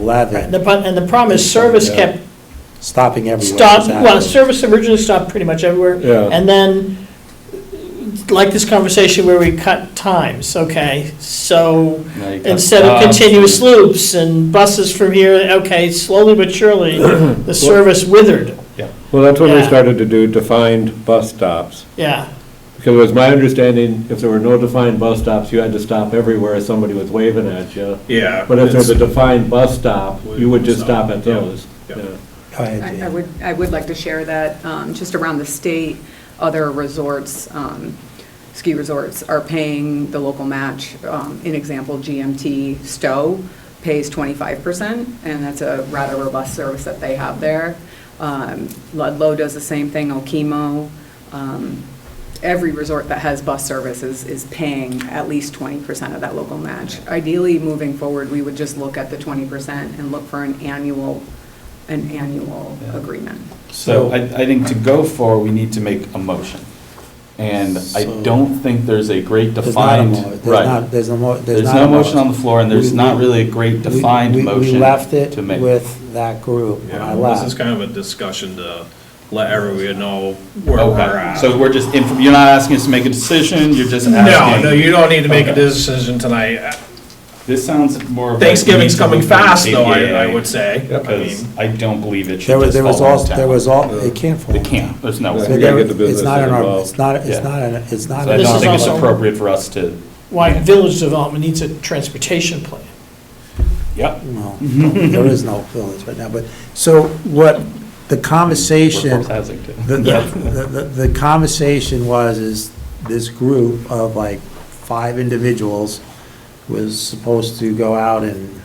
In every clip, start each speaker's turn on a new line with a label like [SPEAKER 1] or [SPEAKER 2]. [SPEAKER 1] 11,
[SPEAKER 2] The pro- And the problem is, service
[SPEAKER 3] Yeah.
[SPEAKER 2] kept
[SPEAKER 1] stopping everywhere.
[SPEAKER 2] stopped,
[SPEAKER 1] Exactly.
[SPEAKER 2] well, service originally stopped pretty much everywhere.
[SPEAKER 3] Yeah.
[SPEAKER 2] And then, like this conversation where we cut times, okay, so
[SPEAKER 4] Now you cut
[SPEAKER 2] instead of
[SPEAKER 4] stops.
[SPEAKER 2] continuous loops and buses from here, okay, slowly but surely, the service withered,
[SPEAKER 3] Well, that's when we
[SPEAKER 2] Yeah.
[SPEAKER 3] started to do defined bus stops.
[SPEAKER 2] yeah.
[SPEAKER 3] Because it was my understanding, if there were no defined bus stops, you had to stop everywhere somebody was waving at you.
[SPEAKER 5] Yeah.
[SPEAKER 3] But if there's a
[SPEAKER 5] it's-
[SPEAKER 3] defined bus stop, you would just stop at those.
[SPEAKER 5] Yeah.
[SPEAKER 3] Yeah.
[SPEAKER 1] Go ahead,
[SPEAKER 6] I I
[SPEAKER 1] Jan.
[SPEAKER 6] would, I would like to share that, um, just around the state, other resorts, um, ski resorts are paying the local match. Um, In example, GMT Stowe pays 25%, and that's a rather robust service that they have there. Um, Ludlow does the same thing, Okemo. Um, Every resort that has bus services is paying at least 20% of that local match. Ideally, moving forward, we would just look at the 20% and look for an annual an annual
[SPEAKER 4] Yeah.
[SPEAKER 6] agreement.
[SPEAKER 4] So I, I think to go for, we need to make a motion. And I
[SPEAKER 1] So-
[SPEAKER 4] don't think there's a great
[SPEAKER 1] There's not a
[SPEAKER 4] defined,
[SPEAKER 1] mo- there's not-
[SPEAKER 4] right.
[SPEAKER 1] There's no, mo-
[SPEAKER 4] There's
[SPEAKER 1] there's not.
[SPEAKER 4] no
[SPEAKER 1] a
[SPEAKER 4] motion on the floor, and there's
[SPEAKER 1] We-
[SPEAKER 4] not
[SPEAKER 1] we-
[SPEAKER 4] really a great
[SPEAKER 1] We-
[SPEAKER 4] defined
[SPEAKER 1] we-
[SPEAKER 4] motion
[SPEAKER 1] We left
[SPEAKER 4] to
[SPEAKER 1] it
[SPEAKER 4] make.
[SPEAKER 1] with that group when I
[SPEAKER 5] Yeah,
[SPEAKER 1] left.
[SPEAKER 5] this is kind of a discussion to let everyone know where we're
[SPEAKER 4] Okay,
[SPEAKER 5] at.
[SPEAKER 4] so we're just, inf- you're not asking us to make a decision, you're just
[SPEAKER 5] No,
[SPEAKER 4] asking.
[SPEAKER 5] no, you don't need to make a
[SPEAKER 4] Okay.
[SPEAKER 5] decision tonight.
[SPEAKER 4] This sounds more of. a-
[SPEAKER 5] Thanksgiving's coming fast, though,
[SPEAKER 4] Yeah.
[SPEAKER 5] I, I would say. I mean,
[SPEAKER 4] Because I don't believe
[SPEAKER 1] There
[SPEAKER 4] it should
[SPEAKER 1] was,
[SPEAKER 4] just
[SPEAKER 1] there was
[SPEAKER 4] fall on
[SPEAKER 1] all,
[SPEAKER 4] town.
[SPEAKER 1] there was all, it can't fall.
[SPEAKER 4] It can't, there's no
[SPEAKER 1] So
[SPEAKER 3] We
[SPEAKER 4] way.
[SPEAKER 3] gotta
[SPEAKER 1] there-
[SPEAKER 3] get the
[SPEAKER 1] It's
[SPEAKER 3] business
[SPEAKER 1] not in our,
[SPEAKER 3] involved.
[SPEAKER 1] it's not, it's
[SPEAKER 4] Yeah.
[SPEAKER 1] not, in- it's not.
[SPEAKER 4] So I
[SPEAKER 1] in
[SPEAKER 2] This
[SPEAKER 4] don't
[SPEAKER 1] our-
[SPEAKER 2] is
[SPEAKER 4] think it's
[SPEAKER 2] also-
[SPEAKER 4] appropriate for us to,
[SPEAKER 2] Why village development needs a transportation plan.
[SPEAKER 4] yep.
[SPEAKER 1] No, there is no feelings right now, but, so what, the conversation,
[SPEAKER 4] Workforce housing too.
[SPEAKER 1] the, the, the- the conversation was, is this group of like five individuals was supposed to go out and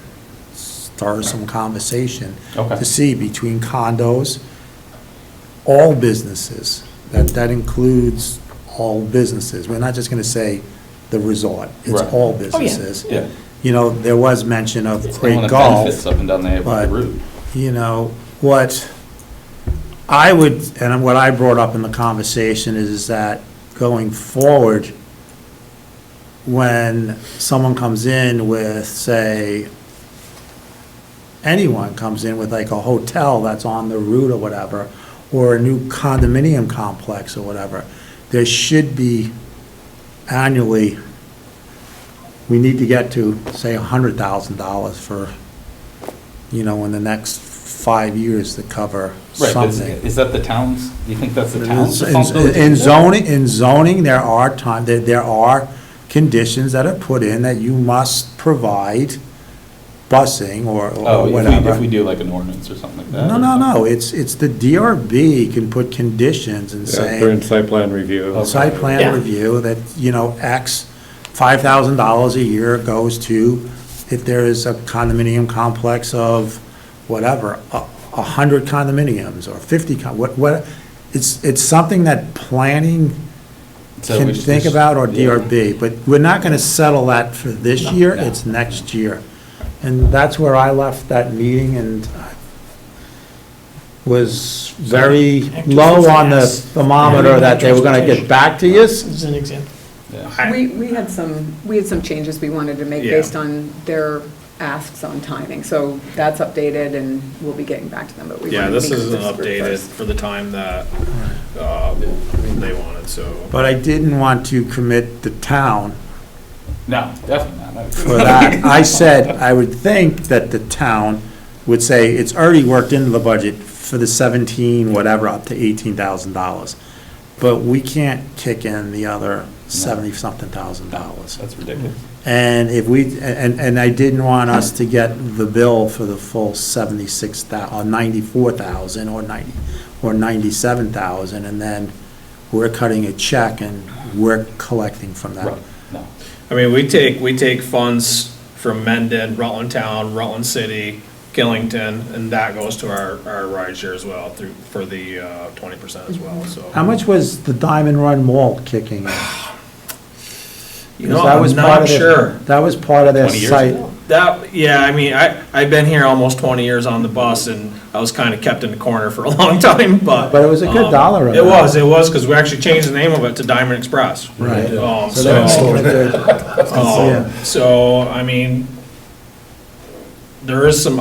[SPEAKER 1] start some conversation
[SPEAKER 4] Okay.
[SPEAKER 1] to see between condos, all businesses, that, that includes all businesses. We're not just gonna say the resort, it's
[SPEAKER 4] Right. Oh,
[SPEAKER 1] all businesses.
[SPEAKER 4] Yeah.
[SPEAKER 1] You know, there was mention of
[SPEAKER 4] They
[SPEAKER 1] great
[SPEAKER 4] want to
[SPEAKER 1] golf
[SPEAKER 4] benefits up and down the
[SPEAKER 1] but-
[SPEAKER 4] route.
[SPEAKER 1] you know, what I would, and what I brought up in the conversation is that going forward, when someone comes in with, say, anyone comes in with like a hotel that's on the route or whatever, or a new condominium complex or whatever, there should be annually, we need to get to, say, $100,000 for, you know, in the next five years to cover
[SPEAKER 4] Right, but is-
[SPEAKER 1] something.
[SPEAKER 4] is that the town's, do you think that's the town's
[SPEAKER 1] In-
[SPEAKER 4] responsibility?
[SPEAKER 1] In zoning, in zoning, there are time, there, there are conditions that are put in that you must provide busing or
[SPEAKER 4] Oh,
[SPEAKER 1] or
[SPEAKER 4] if we,
[SPEAKER 1] whatever.
[SPEAKER 4] if we do like an ordinance or something like that?
[SPEAKER 1] No,
[SPEAKER 4] or
[SPEAKER 1] no,
[SPEAKER 4] something.
[SPEAKER 1] no, it's, it's the DRB can put conditions and
[SPEAKER 3] Yeah, During
[SPEAKER 1] say,
[SPEAKER 3] site plan review.
[SPEAKER 1] site
[SPEAKER 2] Yeah.
[SPEAKER 1] plan review, that, you know, X, five thousand dollars a year goes to, if there is a condominium complex of whatever, a, a hundred condominiums, or fifty, con- what, what, it's, it's something that planning
[SPEAKER 4] So we
[SPEAKER 1] can
[SPEAKER 4] should-
[SPEAKER 1] think about, or
[SPEAKER 4] yeah.
[SPEAKER 1] DRB, but we're not gonna settle that for this
[SPEAKER 4] No,
[SPEAKER 1] year,
[SPEAKER 4] no.
[SPEAKER 1] it's next year. And that's where I left that meeting and I was very
[SPEAKER 2] Active
[SPEAKER 1] low on the
[SPEAKER 2] finance.
[SPEAKER 1] thermometer that they were gonna get
[SPEAKER 2] Transportation.
[SPEAKER 1] back to you.
[SPEAKER 2] This is an example.
[SPEAKER 4] Yeah.
[SPEAKER 5] I-
[SPEAKER 6] We, we had some, we had some changes we wanted to make
[SPEAKER 5] Yeah.
[SPEAKER 6] based on their asks on timing, so that's updated and we'll be getting back to them, but we
[SPEAKER 5] Yeah,
[SPEAKER 6] wanted to
[SPEAKER 5] this
[SPEAKER 6] meet with
[SPEAKER 5] isn't
[SPEAKER 6] group
[SPEAKER 5] updated
[SPEAKER 6] first.
[SPEAKER 5] for the time that, uh, they wanted, so.
[SPEAKER 1] But I didn't want to commit the town
[SPEAKER 4] No, definitely not.
[SPEAKER 1] for that. I said, I would think that the town would say, it's already worked into the budget for the seventeen, whatever, up to eighteen thousand dollars. But we can't kick in the other seventy-something thousand dollars.
[SPEAKER 4] That's ridiculous.
[SPEAKER 1] And if we, and, and I didn't want us to get the bill for the full seventy-six thou, or ninety-four thousand, or ninety, or ninety-seven thousand, and then we're cutting a check and we're collecting from that.
[SPEAKER 4] Right, no.
[SPEAKER 5] I mean, we take, we take funds from Mendon, Rutland Town, Rutland City, Killington, and that goes to our, our ride share as well through, for the, uh, twenty percent as well, so.
[SPEAKER 1] How much was the Diamond Run Mall kicking in?
[SPEAKER 5] You know,
[SPEAKER 1] That was
[SPEAKER 5] I'm
[SPEAKER 1] part
[SPEAKER 5] not
[SPEAKER 1] of their-
[SPEAKER 5] sure.
[SPEAKER 1] That was part of their
[SPEAKER 4] 20 years
[SPEAKER 1] site.
[SPEAKER 4] ago.
[SPEAKER 5] That, yeah, I mean, I, I've been here almost twenty years on the bus, and I was kinda kept in the corner for a long time, but.
[SPEAKER 1] But it was a good
[SPEAKER 5] um,
[SPEAKER 1] dollar
[SPEAKER 5] It
[SPEAKER 1] amount.
[SPEAKER 5] was, it was, cause we actually changed the name of it to Diamond Express.
[SPEAKER 1] Right.
[SPEAKER 5] Um,
[SPEAKER 1] So they were making a good-
[SPEAKER 5] Oh. Um, So, I mean, there is some